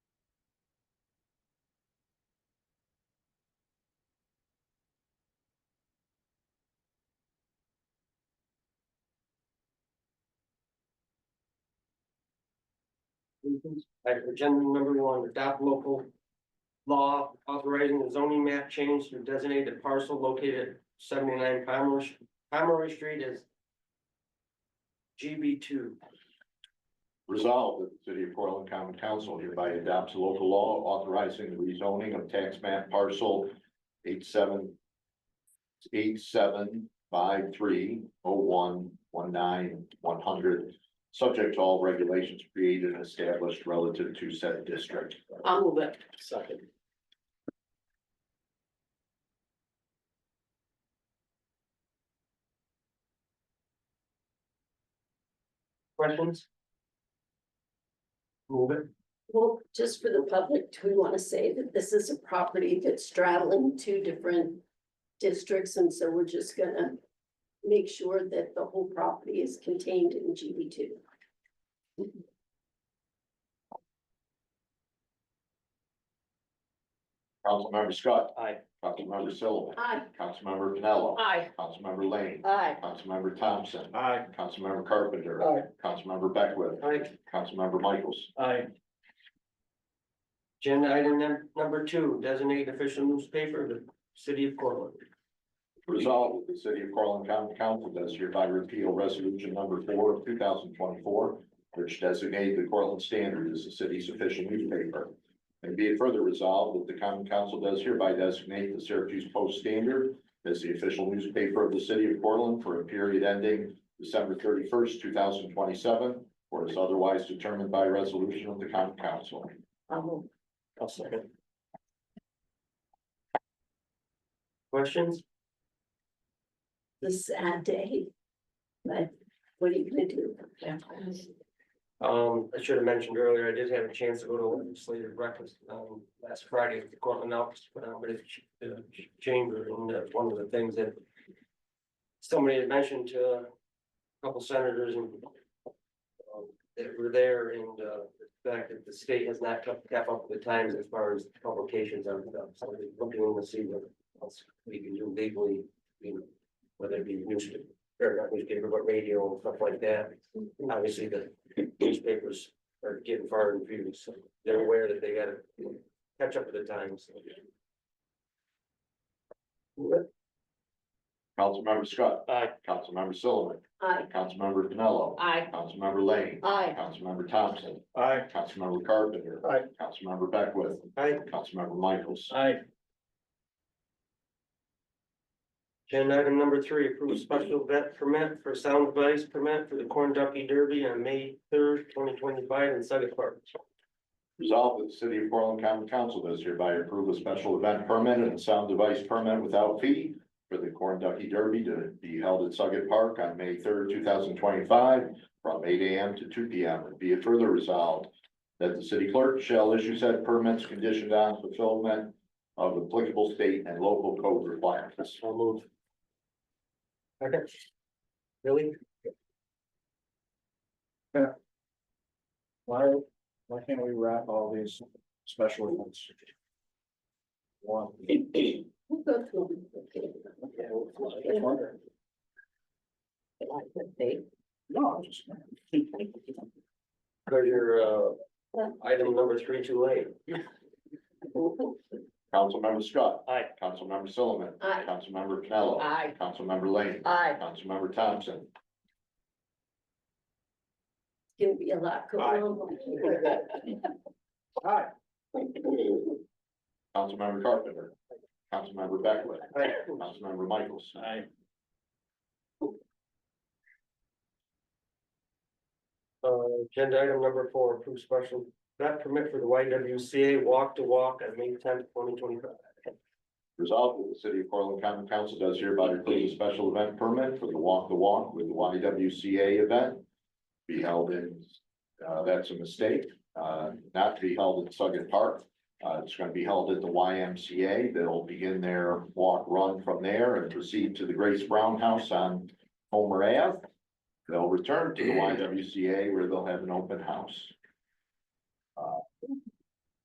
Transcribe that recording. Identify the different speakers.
Speaker 1: applications. Item agenda number one, adopt local law authorizing the zoning map change to designate the parcel located at seventy-nine Pomeroy, Pomeroy Street as GB two.
Speaker 2: Resolved that the city of Portland Common Council hereby adopts local law authorizing the rezoning of tax map parcel eight seven eight seven five three oh one one nine one hundred, subject to all regulations created and established relative to said district.
Speaker 1: I'll move it. Second. Questions? Move it.
Speaker 3: Well, just for the public, do we want to say that this is a property that's straddling two different districts, and so we're just gonna make sure that the whole property is contained in GB two?
Speaker 2: Councilmember Scott.
Speaker 1: Aye.
Speaker 2: Councilmember Sullivan.
Speaker 3: Aye.
Speaker 2: Councilmember Pinello.
Speaker 3: Aye.
Speaker 2: Councilmember Lane.
Speaker 3: Aye.
Speaker 2: Councilmember Thompson.
Speaker 1: Aye.
Speaker 2: Councilmember Carpenter.
Speaker 1: Aye.
Speaker 2: Councilmember Beckwith.
Speaker 1: Aye.
Speaker 2: Councilmember Michaels.
Speaker 1: Aye. Agenda item num- number two, designate official newspaper, of the city of Portland.
Speaker 2: Resolved that the city of Portland County Council does hereby repeal resolution number four of two thousand twenty-four, which designated the Portland Standard as the city's official newspaper. And be it further resolved that the common council does hereby designate the Syracuse Post Standard as the official newspaper of the city of Portland for a period ending December thirty-first, two thousand twenty-seven, or as otherwise determined by resolution of the common council.
Speaker 3: Um,
Speaker 1: I'll second. Questions?
Speaker 3: This is a sad day. But what are you gonna do?
Speaker 1: Um, I should have mentioned earlier, I did have a chance to go to legislative breakfast, um, last Friday, at the Cortland Alps, but I'm in the ch- chamber, and that's one of the things that somebody had mentioned to a couple senators and um, that were there, and, uh, the fact that the state has not kept, kept up with the times as far as publications are, concerned. so we're looking to see what else we can do legally, you know, whether it be newspaper, or not newspaper, but radio and stuff like that. Obviously, the newspapers are getting far and few, so they're aware that they gotta catch up with the times.
Speaker 2: Councilmember Scott.
Speaker 1: Aye.
Speaker 2: Councilmember Sullivan.
Speaker 3: Aye.
Speaker 2: Councilmember Pinello.
Speaker 3: Aye.
Speaker 2: Councilmember Lane.
Speaker 3: Aye.
Speaker 2: Councilmember Thompson.
Speaker 1: Aye.
Speaker 2: Councilmember Carpenter.
Speaker 1: Aye.
Speaker 2: Councilmember Beckwith.
Speaker 1: Aye.
Speaker 2: Councilmember Michaels.
Speaker 1: Aye. Agenda item number three, approve special vet permit for sound device permit for the Corn Ducky Derby on May third, twenty twenty-five in Suggit Park.
Speaker 2: Resolved that the city of Portland Common Council does hereby approve a special event permit and a sound device permit without fee for the Corn Ducky Derby to be held at Suggit Park on May third, two thousand twenty-five, from eight AM to two PM. And Be it further resolved that the city clerk shall issue said permits conditioned on fulfillment of applicable state and local code requirements.
Speaker 1: I'll move. Second. Really?
Speaker 4: Why, why can't we wrap all these special events? One.
Speaker 3: We'll go through them.
Speaker 4: wondering.
Speaker 3: Okay.
Speaker 4: No, I'm just.
Speaker 1: Treasure, uh, item number three two eight.
Speaker 2: Councilmember Scott.
Speaker 1: Aye.
Speaker 2: Councilmember Sullivan.
Speaker 3: Aye.
Speaker 2: Councilmember Pinello.
Speaker 3: Aye.
Speaker 2: Councilmember Lane.
Speaker 3: Aye.
Speaker 2: Councilmember Thompson.
Speaker 3: It's gonna be a lot going on.
Speaker 4: Hi.
Speaker 2: Councilmember Carpenter. Councilmember Beckwith.
Speaker 1: Aye.
Speaker 2: Councilmember Michaels.
Speaker 4: Hi.
Speaker 1: Uh, agenda item number four, approve special vet permit for the YWCA walk to walk on May tenth, twenty twenty five.
Speaker 2: Resolved that the city of Portland Common Council does hereby approve a special event permit for the Walk the Walk with the YWCA event. Be held in, uh, that's a mistake, uh, not to be held at Suggit Park. Uh, it's gonna be held at the YMCA. They'll begin their walk run from there and proceed to the Grace Brown House on Homer Ave. They'll return to the YWCA where they'll have an open house.